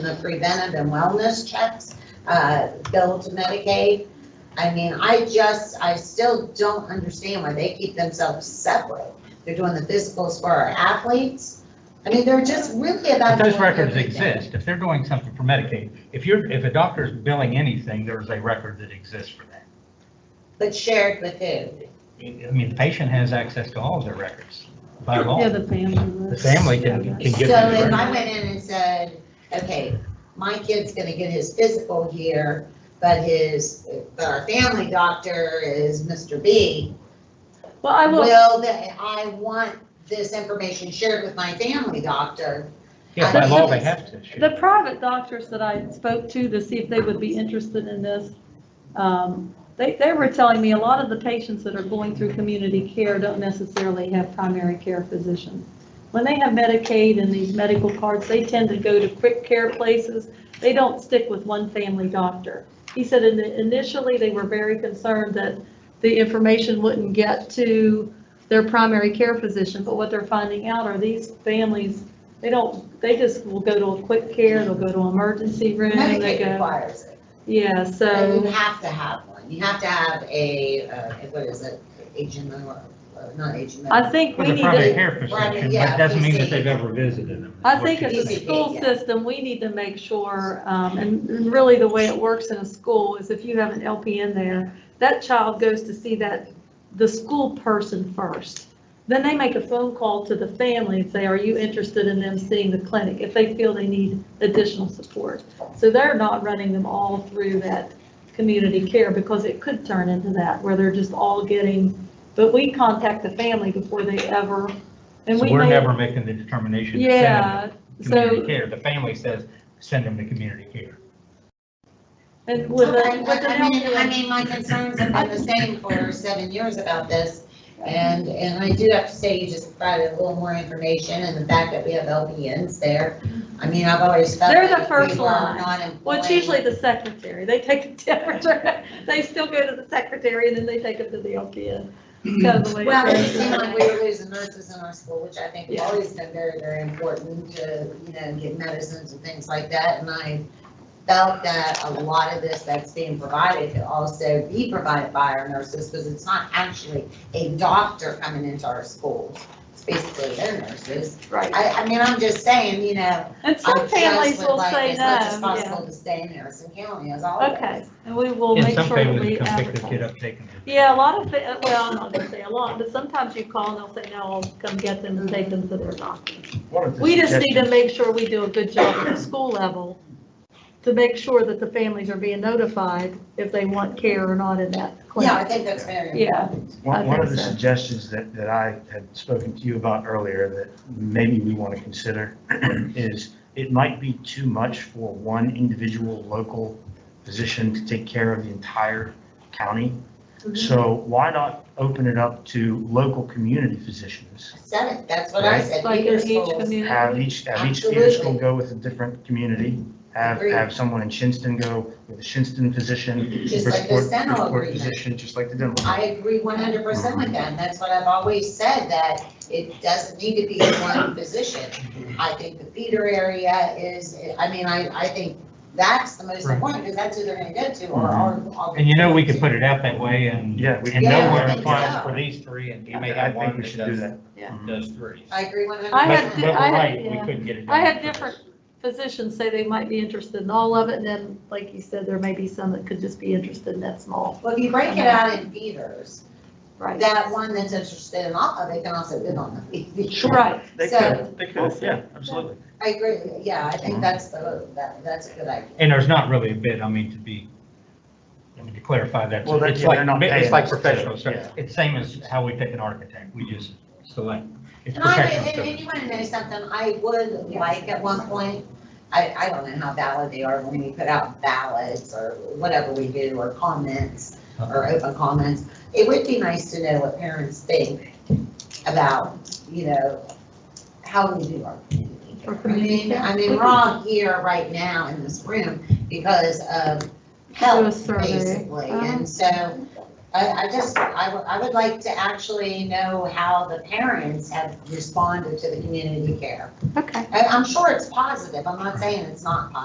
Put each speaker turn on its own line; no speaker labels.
the preventive and wellness checks, uh, bill to Medicaid. I mean, I just, I still don't understand why they keep themselves separate. They're doing the physicals for our athletes. I mean, they're just really about.
But those
doing
records
everything.
exist, if they're doing something for Medicaid, if you're, if a doctor is billing anything, there's a record that exists for that.
But shared with who?
I mean, the patient has access to all of their records by law.
Yeah, the family.
Oh. The
was-
family can,
yeah.
can get
So if I
that.
went in and said, okay, my kid's gonna get his physical here, but his, but our family doctor is Mr. B.
Well, I will,
Will, that, I want this information shared with my family doctor.
Yeah, by law, they have to.
the private doctors that I spoke to to see if they would be interested in this, um, they, they were telling me a lot of the patients that are going through community care don't necessarily have primary care physicians. When they have Medicaid and these medical cards, they tend to go to quick care places. They don't stick with one family doctor. He said in- initially, they were very concerned that the information wouldn't get to their primary care physician, but what they're finding out are these families, they don't, they just will go to a quick care, they'll go to emergency room, they
Medicaid
go,
requires it.
yeah,
And you
so,
have to have one. You have to have a, uh, what is it, HMO, or- uh, not HMO.
I think
With
we
a
need
private
to,
care prescription, but it doesn't mean that they've ever visited them.
I think as
it's-
a
Easy,
school
yeah.
system, we need to make sure, um, and really the way it works in a school is if you have an LPN there, that child goes to see that, the school person first. Then they make a phone call to the family and say, are you interested in them seeing the clinic? If they feel they need additional support. So they're not running them all through that community care because it could turn into that where they're just all getting, but we contact the family before they ever, and
So
we
we're
may-
never making the determination to send them
yeah,
to community
so,
care. The family says, send them to community care.
and with the,
Okay,
with the
I mean, I
LPN,
mean, my concerns have been the same for seven years about this. And, and I do have to say, you just provided a little more information and the fact that we have LPNs there. I mean, I've always felt.
They're the
that
first
we were
line.
not
well, it's
employing-
usually the secretary, they take the temperature, they still go to the secretary, and then they take them to the LPN.
Mm-hmm.
Kind of the way it
Well, it
goes.
seemed like we were losing nurses in our school, which I think has
Yeah.
always been very, very important to, you know, get medicines and things like that. And I felt that a lot of this that's being provided could also be provided by our nurses, because it's not actually a doctor coming into our schools. It's basically their nurses.
Right,
I, I mean, I'm just saying, you know,
and
I
some
just
families
would
will
like
say
as
no,
much as
yeah,
possible to stay in Harrison County as always.
okay, and we will
And
make
some
sure that
families
we
come pick their kid
advertise.
up, take them. to-
Yeah, a lot of, fa- well, I'm not gonna say a lot, but sometimes you call and they'll say, no, I'll come get them and take them to their doctor. We just need to make sure we do a good job at the school level to make sure that the families are being notified if they want care or not in that
Yeah, I
clinic.
think that's very important.
Yeah, I
One, one of
think
the
so.
suggestions that, that I had spoken to you about earlier that maybe we want to consider is it might be too much for one individual local physician to take care of the entire county.
Mm-hmm.
So why not open it up to local community physicians?
Said it, that's what I
Right.
said.
like in
Peter's
each
schools.
Have
community.
each, have each theater school
Absolutely.
go with a different community. Have,
Agreed.
have someone in Shinston go with a Shinston physician.
Just like the
Bridgeport-
Steno
Bridgeport
agreement.
Physician, just like the dental.
I agree one hundred percent with that, and that's what I've always said, that it doesn't need to be one position. I think the feeder area is, I mean, I, I think that's the most
Right.
important, because that's who they're gonna go to, or, or. or-
And you know, we could put it out that way and.
Yeah,
And
we can-
know
Yeah,
where
I
it
think
applies
so.
for these three and you may
I
have
think
one
we
that
should do
does,
that.
Yeah.
Mhm.
does three.
I agree one hundred
But,
I had
but
percent.
di-
we're
I had-
right, we
yeah.
couldn't get it done.
I had different physicians say they might be interested in all of it, and then, like you said, there may be some that could just be interested in that small,
Well, if you break it out in feeders,
right?
that one that's interested in all of it can also bid on the feeder.
Right,
They
So-
could, they could, yeah, absolutely.
I agree, yeah, I think that's the, that, that's a good idea.
And there's not really a bid, I mean, to be, I mean, to clarify that,
Well, that-
it's
yeah,
like,
they're not
it's
paying
like
us to-
professional service.
yeah.
It's same as how we pick an architect, we just select. It's
And I,
professional
and and
service.
you wanna know something, I would like at one point, I, I don't know how valid they are when we put out ballots or whatever we do, or comments, or
Uh-huh.
open comments. It would be nice to know what parents think about, you know, how we do our community.
Our
I
community
mean,
care.
I mean, we're all here right now in this room because of
do a
health,
survey.
basically.
Uh-huh.
And so I, I just, I would, I would like to actually know how the parents have responded to the community care.
Okay.
I, I'm sure it's positive. I'm not saying it's not positive.